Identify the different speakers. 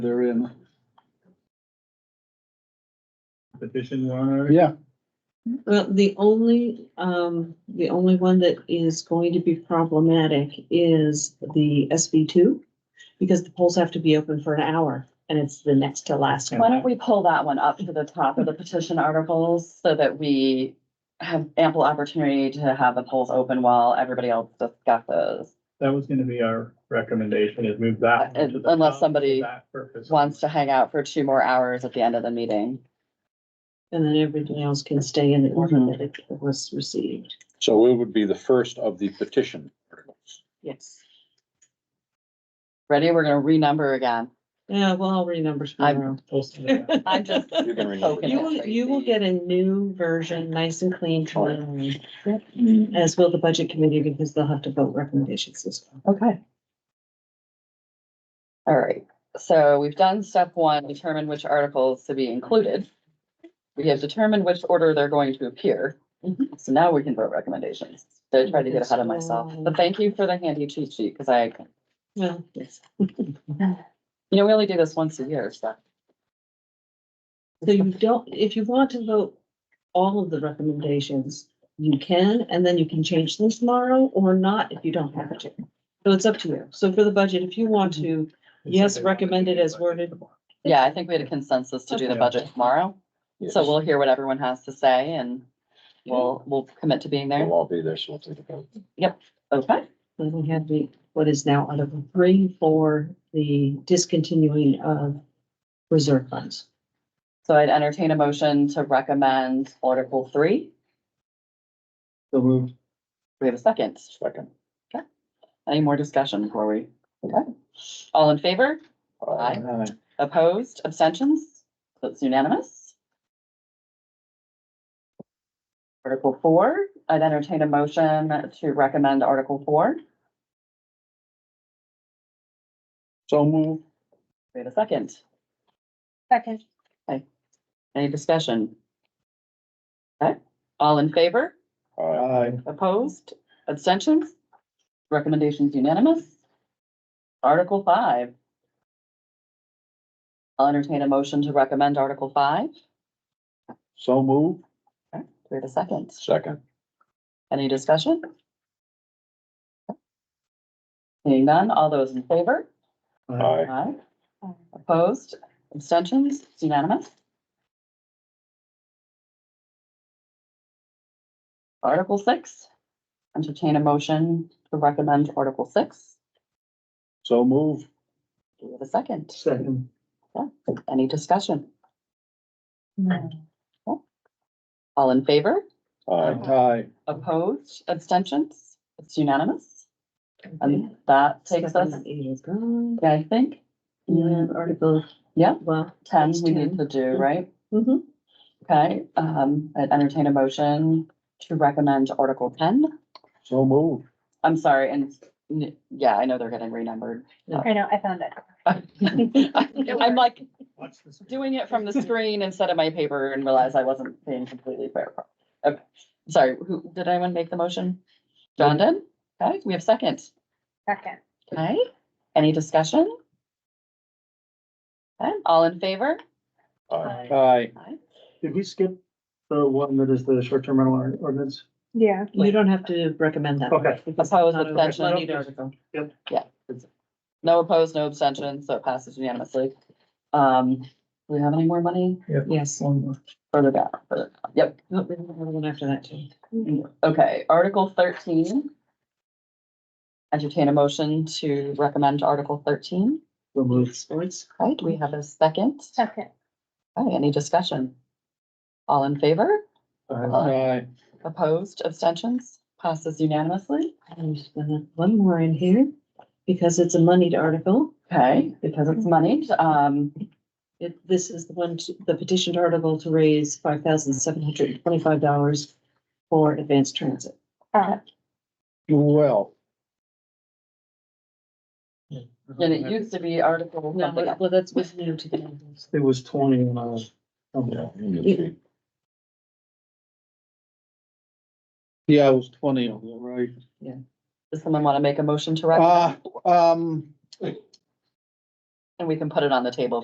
Speaker 1: therein.
Speaker 2: Petition warrant article?
Speaker 1: Yeah,
Speaker 3: Well, the only, um, the only one that is going to be problematic is the SB two. Because the polls have to be open for an hour and it's the next to last
Speaker 4: Why
Speaker 3: one.
Speaker 4: don't we pull that one up to the top of the petition articles so that we have ample opportunity to have the polls open while everybody else discusses?
Speaker 2: That was gonna be our recommendation, is move that. one to the
Speaker 4: Unless
Speaker 2: top for
Speaker 4: somebody
Speaker 2: that purpose.
Speaker 4: Wants to hang out for two more hours at the end of the meeting.
Speaker 3: And then everything else can stay in the order that it was received.
Speaker 5: So it would be the first of the petition articles.
Speaker 3: Yes.
Speaker 4: Ready? We're gonna renumber again.
Speaker 3: Yeah, well, I'll renumber tomorrow.
Speaker 2: Post it out.
Speaker 4: I'm just
Speaker 5: You can read
Speaker 4: poking
Speaker 5: it.
Speaker 3: You will,
Speaker 4: it.
Speaker 3: you will
Speaker 4: Tracy.
Speaker 3: get a new version, nice and clean tomorrow. As will the budget committee because they'll have to vote recommendations as well.
Speaker 4: Okay. All right, so we've done step one, determine which articles to be included. We have determined which order they're going to appear. So now we can vote recommendations. So I tried to get ahead of myself, but thank you for the handy cheat sheet, because I,
Speaker 3: Well, yes.
Speaker 4: you know, we only do this once a year, so.
Speaker 3: So you don't, if you want to vote all of the recommendations, you can, and then you can change them tomorrow or not if you don't have to. So it's up to you. So for the budget, if you want to, Yes, recommended as worded.
Speaker 4: Mhm. Yeah, I think we had a consensus to do the
Speaker 2: Okay.
Speaker 4: budget tomorrow,
Speaker 5: Yes.
Speaker 4: so we'll hear what everyone has to say and we'll, we'll commit to being there.
Speaker 5: We'll all be there, so we'll take a vote.
Speaker 4: Okay,
Speaker 3: then we have the, what is now Article three for the discontinuing of reserve funds.
Speaker 4: so I'd entertain a motion to recommend Article three.
Speaker 2: So moved.
Speaker 4: We have a second.
Speaker 5: Second.
Speaker 4: Any more discussion before we? Okay. All in favor? Aye. Opposed? Abstentions? That's unanimous. Article four, I'd entertain a motion to recommend Article four.
Speaker 5: So move.
Speaker 4: We have a second.
Speaker 6: Second.
Speaker 4: Any discussion? Okay. All in favor?
Speaker 5: Aye.
Speaker 2: Aye.
Speaker 4: Opposed? Abstentions? Recommendations unanimous? Article five. I'll entertain a motion to recommend Article five.
Speaker 5: So move.
Speaker 4: Okay, Do we have a second?
Speaker 5: Second.
Speaker 4: Any discussion? Seeing none, all those in favor?
Speaker 5: Aye.
Speaker 4: Aye. Opposed? Abstentions? It's unanimous? Article six, entertain a motion to recommend Article six.
Speaker 5: So move.
Speaker 4: Do we have a second?
Speaker 2: Second.
Speaker 4: Any discussion?
Speaker 3: Um,
Speaker 4: All in favor?
Speaker 5: Aye.
Speaker 2: Aye.
Speaker 4: Opposed? Abstentions? It's unanimous? And that Um, takes us,
Speaker 3: Eight is gone.
Speaker 4: yeah, I think,
Speaker 3: You have Article.
Speaker 4: Yeah.
Speaker 3: Well.
Speaker 4: ten
Speaker 3: That's
Speaker 4: we
Speaker 3: 10.
Speaker 4: need to do, right?
Speaker 3: mhm.
Speaker 4: Okay, um, I'd entertain a motion to recommend Article ten.
Speaker 5: So move.
Speaker 4: I'm sorry, and n- yeah, I know they're getting renumbered.
Speaker 6: I know, I found it.
Speaker 4: I'm like
Speaker 2: Watch this.
Speaker 4: doing it from the screen instead of my paper and realize I wasn't being completely fair. Okay, sorry, who, did anyone make the motion? John did? Okay, we have second.
Speaker 6: Second.
Speaker 4: Okay, any discussion? Okay, all in favor?
Speaker 5: Aye.
Speaker 2: Aye.
Speaker 4: Aye.
Speaker 2: Did we skip the one that is the short-term rental or- ordinance?
Speaker 6: Yeah.
Speaker 3: You don't have to recommend that.
Speaker 2: Okay.
Speaker 3: Because
Speaker 4: Opposed,
Speaker 3: not a
Speaker 4: abstention?
Speaker 3: related article.
Speaker 4: No opposed, no abstentions, so it passes unanimously. Um, do we have any more money?
Speaker 3: Yes.
Speaker 4: Further down, further down. Yep,
Speaker 3: Nope, we don't have one after that too.
Speaker 4: okay, Article thirteen. Entertain a motion to recommend Article thirteen.
Speaker 2: So moved.
Speaker 3: Sports.
Speaker 4: Right, do we have a second?
Speaker 6: Second.
Speaker 4: Okay, any discussion? All in favor?
Speaker 2: Aye.
Speaker 4: Opposed, abstentions? Passes unanimously.
Speaker 3: I'm just gonna, one more in here, because it's a moneyed article.
Speaker 4: Okay, because it's money, um,
Speaker 3: It, this is the one, to- the petitioned article to raise five thousand seven hundred and twenty-five dollars for advanced transit.
Speaker 6: Uh,
Speaker 5: Well.
Speaker 4: and it used to be Article
Speaker 3: No,
Speaker 4: something else.
Speaker 3: well, that's what's new to the.
Speaker 2: It was twenty uh, when I was. okay.
Speaker 1: yeah, it was twenty on that, right?
Speaker 5: Ah. Uh, um,
Speaker 4: Does someone want to make a motion to recommend?
Speaker 1: Uh, um,
Speaker 4: and we can put it on the table